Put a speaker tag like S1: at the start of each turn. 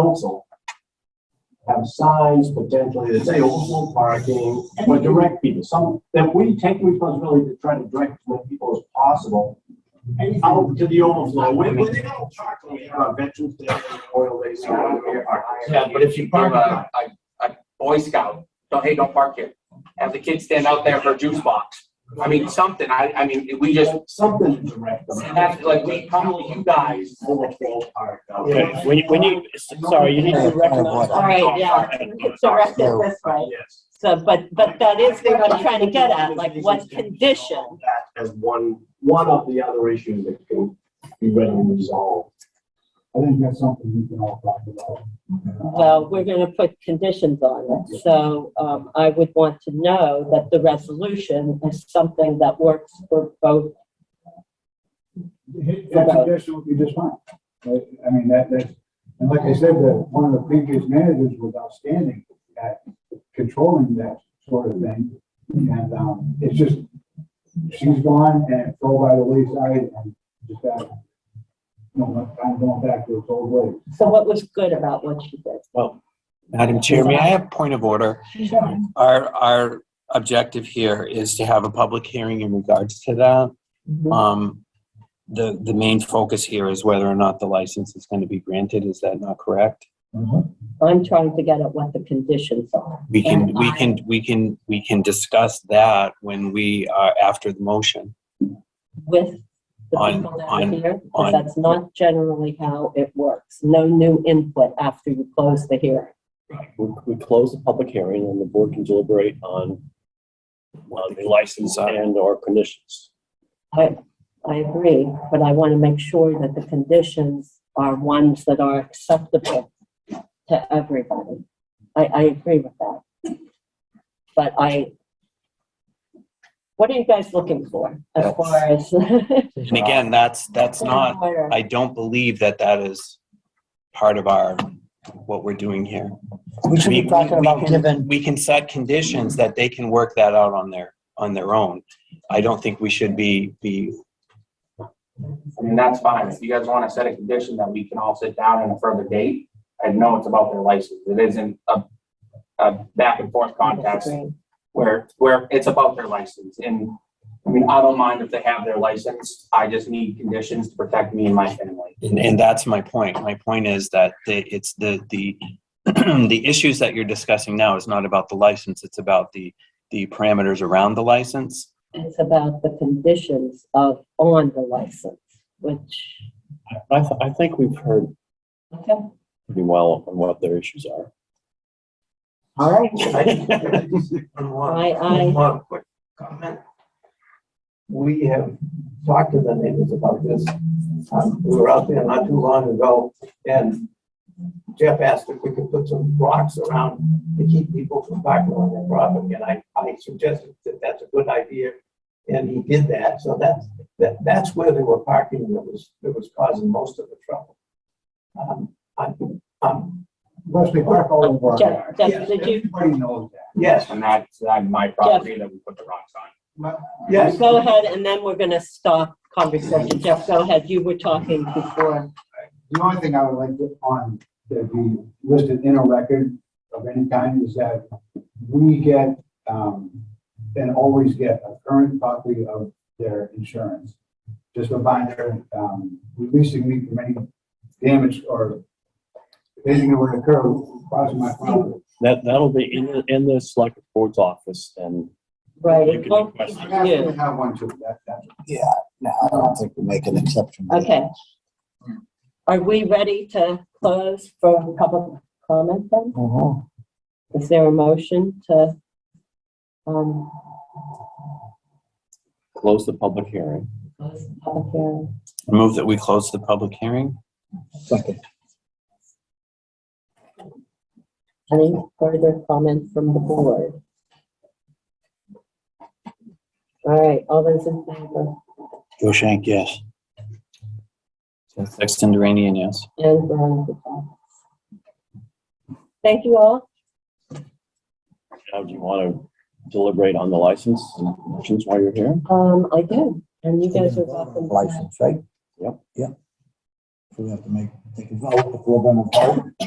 S1: council have signs potentially that say overflow parking or direct people, some, that we take responsibility to try to direct as many people as possible out to the overflow. When, when they don't talk to me, uh, veterans, they oil, they say, "Oh, we're parking."
S2: Yeah, but if you give a, a, a Boy Scout, don't, hey, don't park here. Have the kids stand out there for a juice box. I mean, something, I, I mean, we just,
S1: Something to direct them.
S2: and that's like, we come to you guys.
S1: Overflow park.
S3: Okay, when you, when you, sorry, you need to recognize.
S4: All right, yeah, so rest it this way.
S1: Yes.
S4: So, but, but that is what I'm trying to get at, like what condition?
S1: That as one, one of the other issues that can be readily resolved.
S5: I think that's something we can all talk about.
S4: Well, we're gonna put conditions on it, so, um, I would want to know that the resolution is something that works for both.
S5: His suggestion would be just fine. But, I mean, that, that, and like I said, that one of the previous managers was outstanding at controlling that sort of thing. And, um, it's just, she's gone and it fell by the wayside and just that, you know, I'm going back to its old ways.
S4: So what was good about what she did?
S6: Madam Chair, may I have point of order? Our, our objective here is to have a public hearing in regards to that. Um, the, the main focus here is whether or not the license is going to be granted. Is that not correct?
S4: I'm trying to get at what the conditions are.
S6: We can, we can, we can, we can discuss that when we are after the motion.
S4: with the
S6: On-
S4: people that are
S6: on-
S4: here, because
S6: on-
S4: that's not generally how it works. No new input after you close the hearing.
S7: we, we close the public hearing and the board can deliberate on uh, the license
S6: are.
S7: and or conditions.
S4: I, I agree, but I want to make sure that the conditions are ones that are acceptable to everybody. I, I agree with that. But I, what are you guys looking for as
S6: That's-
S4: far as?
S6: And again, that's, that's not, I don't believe that that is part of our, what we're doing here.
S3: We should
S6: We-
S3: be
S6: we-
S3: talking
S6: we
S3: about
S6: can-
S3: given,
S6: we can set conditions that they can work that out on their, on their own. I don't think we should be, be,
S2: I mean, that's fine. If you guys want to set a condition that we can all sit down on a further date, I know it's about their license. It isn't a, a back and forth contest where, where it's about their license. And, I mean, I don't mind if they have their license. I just need conditions to protect me and my family.
S6: and, and that's my point. My point is that the, it's the, the, the issues that you're discussing now is not about the license, it's about the, the parameters around the license.
S4: It's about the conditions of on the license, which,
S7: I, th- I think we've heard
S4: okay,
S7: pretty well on what their issues are.
S3: all right,
S4: I, I,
S8: we have talked to the neighbors about this. Um, We were out there not too long ago, and Jeff asked if we could put some rocks around to keep people from parking on their property, and I, I suggested that that's a good idea, and he did that, so that's, that, that's where they were parking that was, that was causing most of the trouble. Um, I'm, I'm,
S5: Plus, they park all over. our-
S4: Jeff, Jeff, did you,
S5: Everybody knows that.
S8: yes,
S2: And that's, uh my property that we put the rocks on.
S8: yes.
S4: go ahead, and then we're gonna stop conversation. Jeff, go ahead, you were talking before.
S5: The only thing I would like to, on, to be listed in a record of any kind is that we get, um, and always get a current copy of their insurance. Just a binder, um, releasing me from any damage or anything that would occur causing my property.
S7: That, that'll be in, the- in the select board's office and
S4: Right.
S7: You can
S4: Well,
S7: request
S5: I have
S4: yeah.
S5: to have one too, that, that's.
S3: yeah, no, I don't think we make an exception.
S4: Okay. Are we ready to close for public comment then?
S3: Mhm.
S4: Is there a motion to, um,
S7: close the public hearing.
S4: close the public hearing?
S6: Move that we close the public hearing?
S3: Second.
S4: Any further comment from the board? All right, all those in favor?
S3: Joe Shank, yes.
S6: Sexton Duranian, yes.
S4: And Veronica Cox. Thank you all.
S7: Now, do you want to deliberate on the license and conditions while you're here?
S4: Um, I do, and you guys are welcome.
S3: License, right?
S7: Yep.
S3: Yep. We have to make, take a vote if we're gonna vote.